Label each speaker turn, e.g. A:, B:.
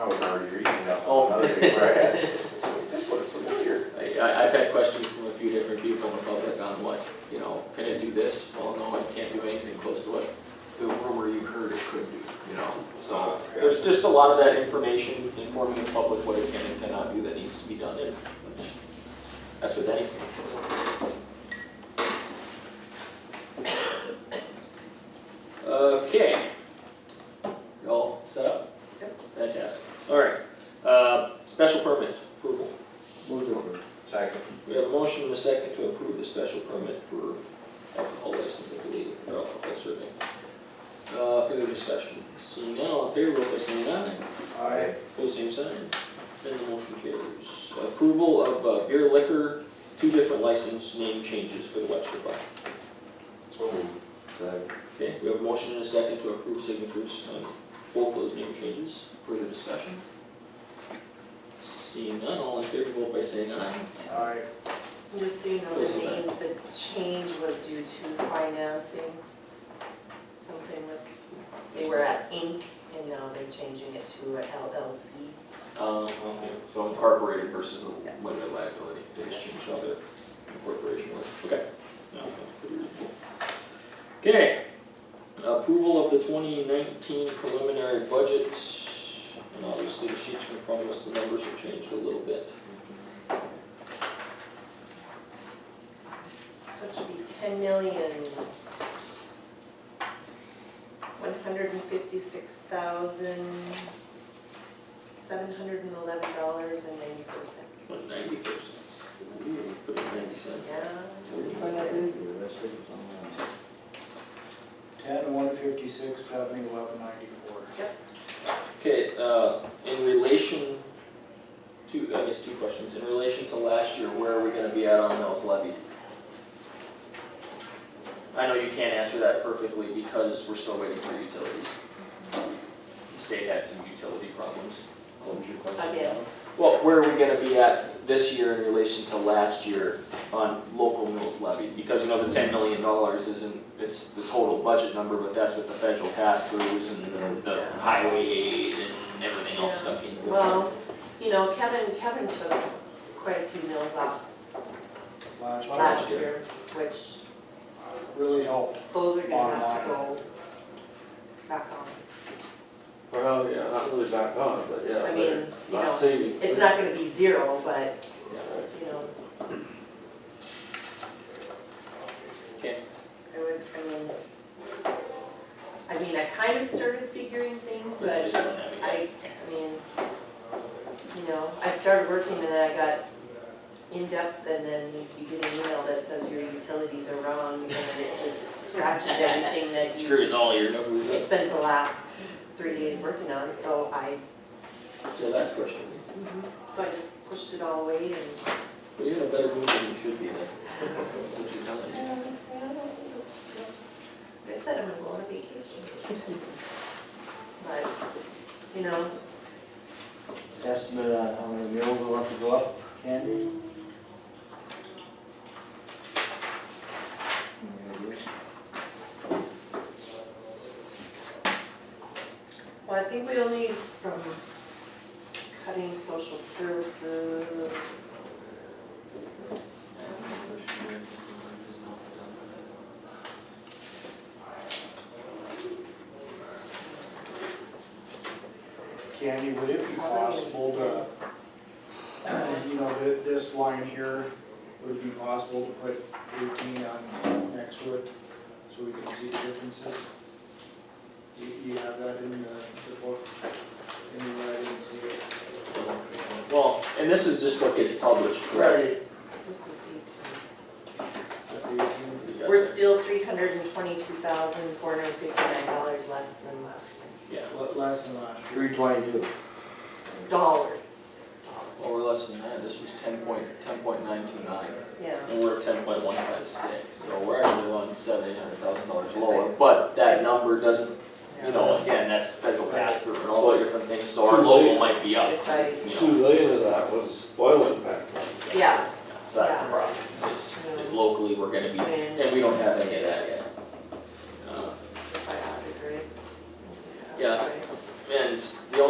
A: or you're eating up
B: Oh.
A: another big brand. It's like, This looks familiar.
B: I, I- I've had questions from a few different people in the public on what, you know, can it do this? Well, no, it can't do anything close to what the rumor you heard it could do, you know? So there's just a lot of that information informing the public what it can and cannot do that needs to be done and which- that's with anything. Okay. You all set up? Yep. Fantastic. All right. Uh, special permit approval.
A: Second.
B: We have a motion and a second to approve the special permit for alcohol license, I believe, for alcohol serving. Uh, further discussion, seeing none, all in favor, vote by saying aye.
A: Aye.
B: Pose same sign, then the motion carries. Approval of uh, beer liquor, two different license name changes for the Webster Bar.
A: So moved. Second.
B: Okay, we have a motion and a second to approve signatures on both those name changes. Further discussion? Seeing none, all in favor, vote by saying aye.
A: Aye.
C: Just so you know, the name, the change was due to financing. Something with, they were at Inc. and now they're changing it to a LLC.
B: Um, okay, so incorporated versus the limited liability, they just changed how the incorporation was, okay. No, that's pretty reasonable. Okay, approval of the twenty nineteen preliminary budgets, and obviously the sheets in front of us, the numbers have changed a little bit.
C: So it should be ten million, one hundred and fifty-six thousand, seven hundred and eleven dollars and ninety-four cents.
B: One ninety four cents. Ooh, put in ninety cents.
C: Yeah.
D: Ten, one fifty-six, seventy, eleven ninety-four.
B: Okay, uh, in relation to, I guess two questions, in relation to last year, where are we gonna be at on mills levied? I know you can't answer that perfectly because we're still waiting for utilities. The state had some utility problems. What was your question?
C: Again.
B: Well, where are we gonna be at this year in relation to last year on local mills levied? Because you know, the ten million dollars isn't, it's the total budget number, but that's with the federal pass-throughs and the, the highway aid and everything else stuck in. with it.
C: Well, you know, Kevin, Kevin took quite a few mills off
D: Last year.
C: last year, which
D: Really helped.
C: Those are gonna
D: Bottom
C: have to
D: line.
C: go back on.
E: Well, yeah, not really back on, but yeah,
C: I
E: they're
C: mean, you
E: not
C: know,
E: saving.
C: it's not gonna be zero, but,
E: Yeah.
C: you know,
B: Okay,
C: I would, I mean, I mean, I kind of started figuring things,
B: we just
C: but
B: don't have it yet.
C: I, I mean, you know, I started working and then I got in-depth and then you get an email that says your utilities are wrong and then it just scratches everything that you
B: It
C: just.
B: Screws all your numbers up.
C: Spent the last three days working on, so I Mhm.
B: So that's question.
C: So I just pushed it all away and.
B: Well, you're in a better mood than you should be then. What you telling me?
C: I said I'm gonna go on vacation. But, you know,
F: estimate on how many mills we want to go up, Candy? Any ideas?
C: well, I think we only from cutting social services.
D: Candy, would it be possible to, you know, thi- this line here, would it be possible to put eighteen on next to it so we can see the differences? You, you have that in the, the book? Anywhere I didn't see it.
B: Well, and this is just what gets published, correct?
D: Right.
C: This is eighteen.
D: That's eighteen.
B: You got
C: We're
B: that.
C: still three hundred and twenty-two thousand, four hundred and fifty-nine dollars less than last year.
B: Yeah,
D: Le- Less than last year.
F: Three twenty-two.
C: Dollars.
B: well, we're less than that, this was ten point, ten point nine two nine.
C: Yeah.
B: And we're at ten point one five six, so we're actually one seven, eight hundred thousand dollars lower, but that number doesn't, you know, again, that's federal pass through and all the different things, so our local might be up,
C: If I,
B: you
E: Two
B: know,
E: million of that was oil impact.
C: yeah,
B: so that's the problem, is, is locally, we're gonna be,
C: I mean,
B: and we don't have any of that yet. Uh,
C: if I added, right?
B: Yeah. And the